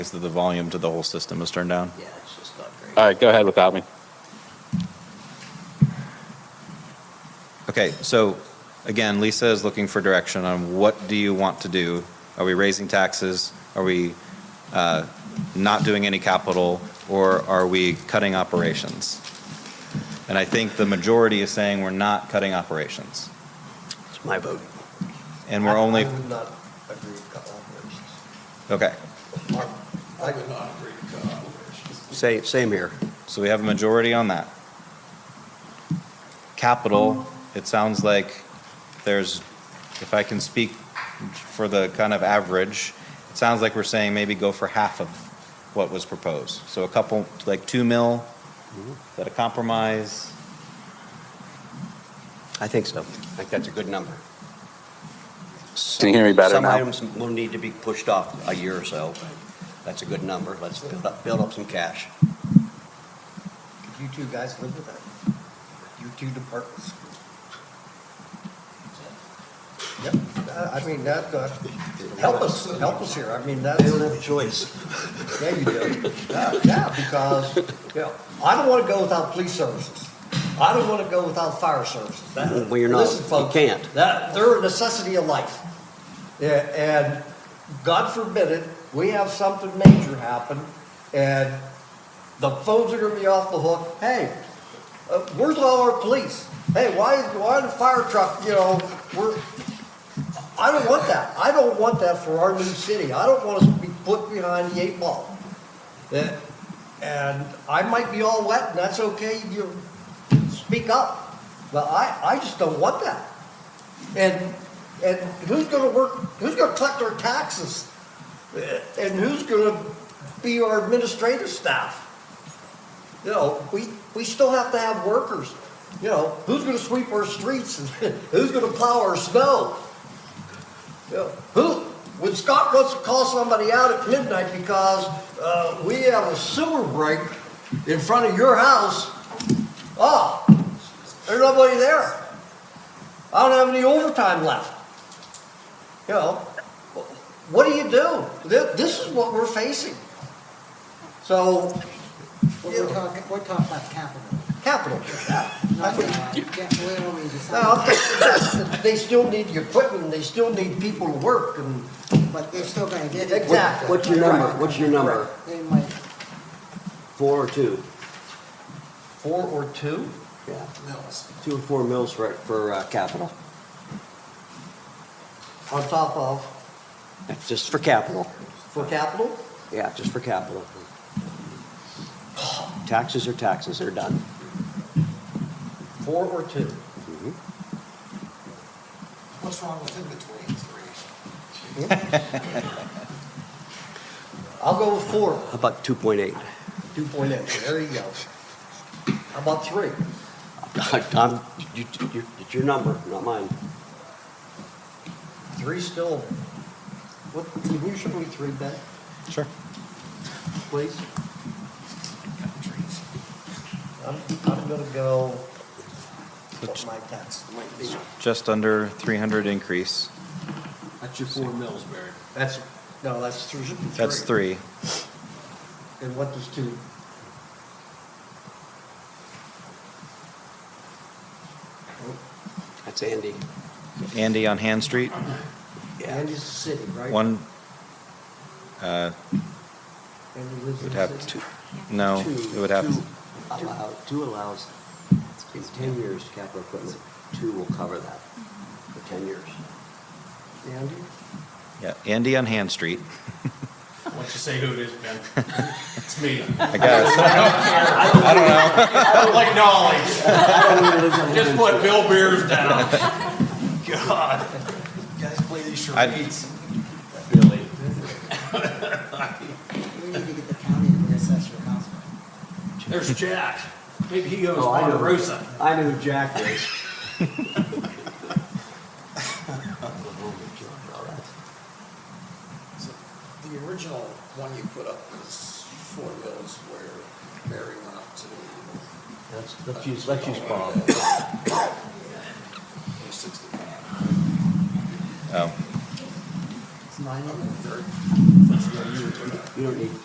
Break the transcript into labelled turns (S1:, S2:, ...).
S1: Is that the volume to the whole system is turned down?
S2: Yeah, it's just not great.
S3: All right, go ahead without me.
S1: Okay, so again, Lisa is looking for direction on what do you want to do? Are we raising taxes? Are we uh, not doing any capital? Or are we cutting operations? And I think the majority is saying we're not cutting operations.
S2: It's my vote.
S1: And we're only,
S4: I would not agree to cut operations.
S1: okay,
S4: I would not agree to cut operations.
S2: Same, same here.
S1: so we have a majority on that. Capital, it sounds like there's, if I can speak for the kind of average, it sounds like we're saying maybe go for half of what was proposed. So a couple, like two mil, is that a compromise?
S2: I think so. I think that's a good number.
S3: Can you hear me better
S2: Some
S3: now?
S2: items will need to be pushed off a year or so. That's a good number. Let's build up, build up some cash.
S4: Could you two guys live with that? You two departments? Yep, I I mean, that, uh, help us, help us here, I mean, that's.
S2: They don't have a choice.
S4: Yeah, you do. Yeah, yeah, because, you know, I don't want to go without police services. I don't want to go without fire services. That-
S2: Well, you're not.
S4: Listen,
S2: You
S4: folks,
S2: can't.
S4: That, they're a necessity of life. Yeah, and God forbid it, we have something major happen and the phones are gonna be off the hook. Hey, uh, where's all our police? Hey, why, why the fire truck, you know, we're, I don't want that. I don't want that for our new city. I don't want us to be put behind the eight ball. Yeah, And I might be all wet, and that's okay, you speak up. But I, I just don't want that. And, and who's gonna work, who's gonna collect our taxes? Eh, And who's gonna be our administrative staff? You know, we, we still have to have workers. You know, who's gonna sweep our streets? and Who's gonna plow our snow? You know, Who, when Scott wants to call somebody out at midnight because, uh, we have a sewer break in front of your house, oh, there's nobody there. I don't have any overtime left. You know, what do you do? Thi- This is what we're facing. So,
S5: Well, We're talking, we're talking about capital,
S4: capital.
S5: not, uh, yeah, we don't need to say-
S4: Now, they still need the equipment, and they still need people to work, and
S5: but they're still gonna get it.
S4: Exactly.
S2: What's your number? What's your number?
S5: They might,
S2: Four or two?
S4: four or two?
S2: Yeah. Two or four mills for, for uh, capital.
S4: On top of,
S2: Just for capital.
S4: for capital?
S2: Yeah, just for capital. Taxes are taxes, they're done.
S4: Four or two?
S5: what's wrong with in-between three?
S4: I'll go with four,
S2: How about 2.8?
S4: two point eight, there you go. How about three?
S2: Tom, you, you, it's your number, not mine.
S4: Three's still, what, can you show me three, Ben,
S1: Sure.
S4: please? I'm, I'm gonna go, what my tax might be.
S1: Just under 300 increase.
S5: That's your four mills, Barry.
S4: That's, no, that's three.
S1: That's three.
S4: And what does two?
S2: That's Andy.
S1: Andy on Hand Street,
S4: And is a city, right?
S1: one, uh,
S4: And he lives
S1: it
S4: in
S1: would
S4: the
S1: have
S4: city.
S1: two, no,
S2: Two-
S1: it would have,
S2: two allow- Two allows, in 10 years, capital equipment, two will cover that for 10 years.
S4: Andy?
S1: yeah, Andy on Hand Street.
S6: Once you say who it is, Ben, it's me.
S1: I guess.
S6: I don't like knowledge. Just put Bill Beers down. God. You guys play these charades. Really?
S5: We need to get the county to reassess your housing.
S6: There's Jack. Maybe he owns Ponderosa.
S2: I know who Jack is.
S7: So The original one you put up was four mills where Mary went up to uh,
S2: Let's, let's use, let's use Bob.
S7: sixty-five.
S1: Oh.
S8: mine in there.
S4: You don't need